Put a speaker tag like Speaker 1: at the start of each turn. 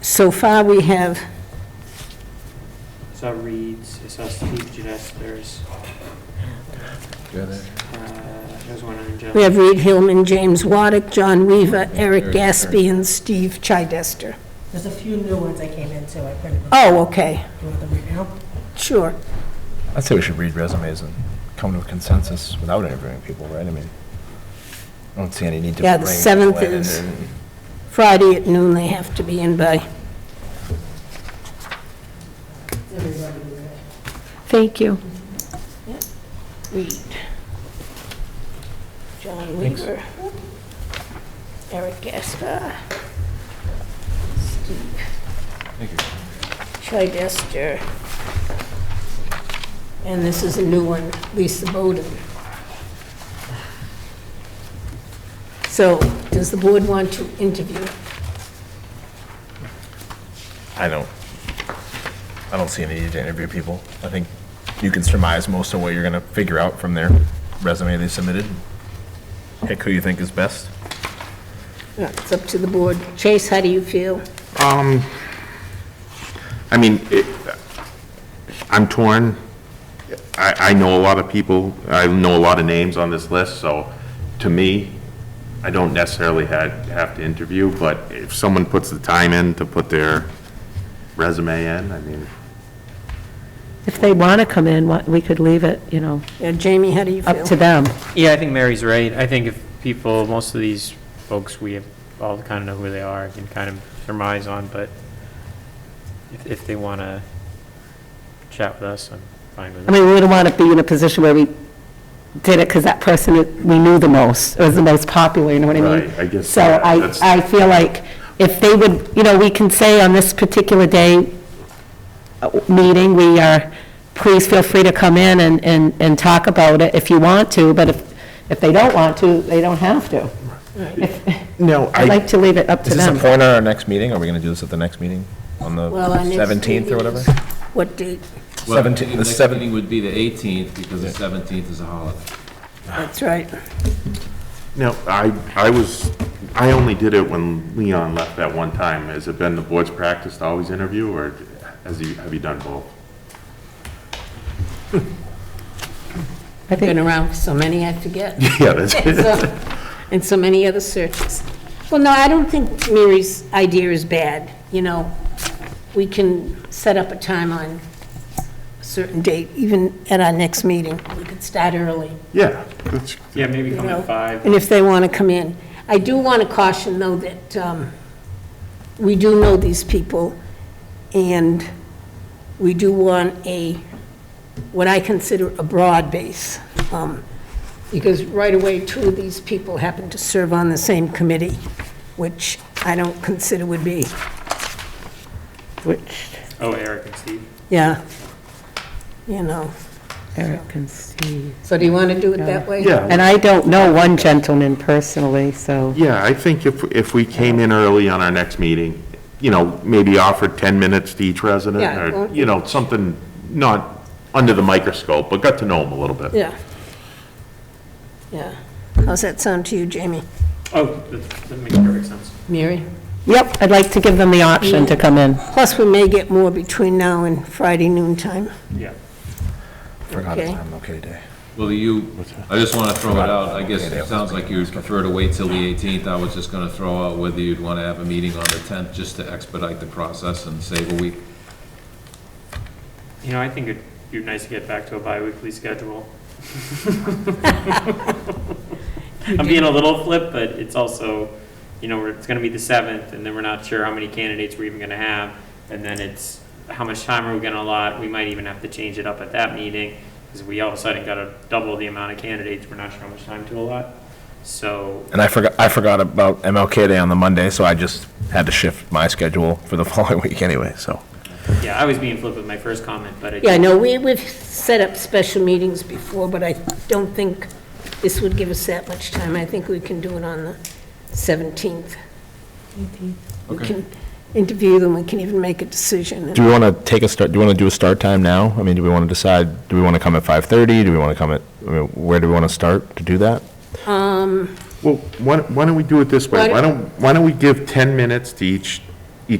Speaker 1: So far, we have,
Speaker 2: I saw Reed's, I saw Steve Genesters, uh, there was one on
Speaker 1: we
Speaker 2: John.
Speaker 1: have Reed Hillman, James Waddick, John Weaver, Eric Gaspey, and Steve Chidester.
Speaker 3: There's a few new ones I came into, I printed them,
Speaker 1: Oh, okay,
Speaker 3: do you want them right now?
Speaker 1: sure.
Speaker 4: I'd say we should read resumes and come to a consensus without interviewing people, right? I mean, I don't see any need to
Speaker 1: Yeah,
Speaker 4: bring
Speaker 1: the
Speaker 4: people
Speaker 1: seventh
Speaker 4: in
Speaker 1: is-
Speaker 4: and-
Speaker 1: Friday at noon, they have to be in by. Thank you. Reed. John Weaver. Eric Gaspar. Steve. Chidester. And this is a new one, Lisa Bowden. So, does the board want to interview?
Speaker 4: I don't, I don't see any need to interview people. I think you can surmise most of what you're gonna figure out from their resume they submitted. Pick who you think is best.
Speaker 1: Yeah, It's up to the board. Chase, how do you feel?
Speaker 5: Um, I mean, it, I'm torn. I, I know a lot of people, I know a lot of names on this list, so to me, I don't necessarily had, have to interview, but if someone puts the time in to put their resume in, I mean,
Speaker 6: If they want to come in, what- we could leave it, you know,
Speaker 1: Yeah, Jamie, how do you feel?
Speaker 6: up to them.
Speaker 2: Yeah, I think Mary's right. I think if people, most of these folks, we have all kind of know who they are, and can kind of surmise on, but if, if they want to chat with us, I'm fine with
Speaker 6: I
Speaker 2: it.
Speaker 6: mean, we wouldn't want to be in a position where we did it because that person is- we knew the most, was the most popular, you know what I mean?
Speaker 5: Right, I guess
Speaker 6: So
Speaker 5: that-
Speaker 6: I,
Speaker 5: that's-
Speaker 6: I feel like if they would, you know, we can say on this particular day, uh, meeting, we are, please feel free to come in and, and, and talk about it if you want to, but if, if they don't want to, they don't have to.
Speaker 4: No,
Speaker 6: I'd like to leave it up to
Speaker 4: Is this
Speaker 6: them.
Speaker 4: a point on our next meeting? Are we gonna do this at the next meeting? On the
Speaker 1: Well, our next
Speaker 4: seventeenth or
Speaker 1: meeting
Speaker 4: whatever?
Speaker 1: is- What date?
Speaker 7: Well, the
Speaker 4: Seventeen, the
Speaker 7: next
Speaker 4: seventh,
Speaker 7: meeting would be the 18th, because the 17th is a holiday.
Speaker 1: That's right.
Speaker 5: no, I, I was, I only did it when Leon left at one time. Has it been the board's practice to always interview, or has you, have you done both?
Speaker 6: I
Speaker 1: Been
Speaker 6: think,
Speaker 1: around for so many, I forget.
Speaker 5: Yeah, that's
Speaker 1: So- And so many other searches. Well, no, I don't think Mary's idea is bad, you know. We can set up a time on a certain date, even at our next meeting. We could start early.
Speaker 5: Yeah, that's,
Speaker 2: Yeah, maybe come
Speaker 1: know.
Speaker 2: at five.
Speaker 1: and if they want to come in. I do want to caution, though, that um, we do know these people, and we do want a, what I consider a broad base, um, because right away, two of these people happen to serve on the same committee, which I don't consider would be,
Speaker 6: which,
Speaker 2: Oh, Eric and Steve.
Speaker 1: yeah, you know.
Speaker 6: Eric can see.
Speaker 1: So do you want to do it that way?
Speaker 5: yeah.
Speaker 6: And I don't know one gentleman personally, so.
Speaker 5: Yeah, I think if, if we came in early on our next meeting, you know, maybe offered 10 minutes to each resident,
Speaker 1: Yeah, it
Speaker 5: or,
Speaker 1: won't-
Speaker 5: you know, something not under the microscope, but got to know them a little bit.
Speaker 1: Yeah. Yeah. How's that sound to you, Jamie?
Speaker 2: Oh, that, that makes perfect sense.
Speaker 1: Mary?
Speaker 6: Yep, I'd like to give them the option to come in.
Speaker 1: Plus, we may get more between now and Friday noon time.
Speaker 2: Yeah.
Speaker 4: forgot it's
Speaker 1: Okay.
Speaker 4: on okay day.
Speaker 7: Well, you, I just want to throw it out, I guess it sounds like you would prefer to wait till the 18th. I was just going to throw out whether you'd want to have a meeting on the 10th, just to expedite the process and save a week.
Speaker 2: You know, I think it'd be nice to get back to a bi-weekly schedule. I'm being a little flip, but it's also, you know, we're- it's gonna be the seventh, and then we're not sure how many candidates we're even gonna have, and then it's, how much time are we gonna allot? We might even have to change it up at that meeting, because we all of a sudden gotta double the amount of candidates, we're not sure how much time to allot. So,
Speaker 4: And I forgot, I forgot about MLK Day on the Monday, so I just had to shift my schedule for the following week anyway, so.
Speaker 2: yeah, I was being flip with my first comment, but I
Speaker 1: Yeah, no, we, we've set up special meetings before, but I don't think this would give us that much time. I think we can do it on the 17th. We
Speaker 7: Okay.
Speaker 1: can interview them, we can even make a decision.
Speaker 4: Do we want to take a start, do we want to do a start time now? I mean, do we want to decide, do we want to come at 5:30? Do we want to come at, I mean, where do we want to start to do that?
Speaker 1: Um,
Speaker 5: Well, why, don't- why don't we do it this way?
Speaker 1: Why-
Speaker 5: Why don't, why don't we give 10 minutes to each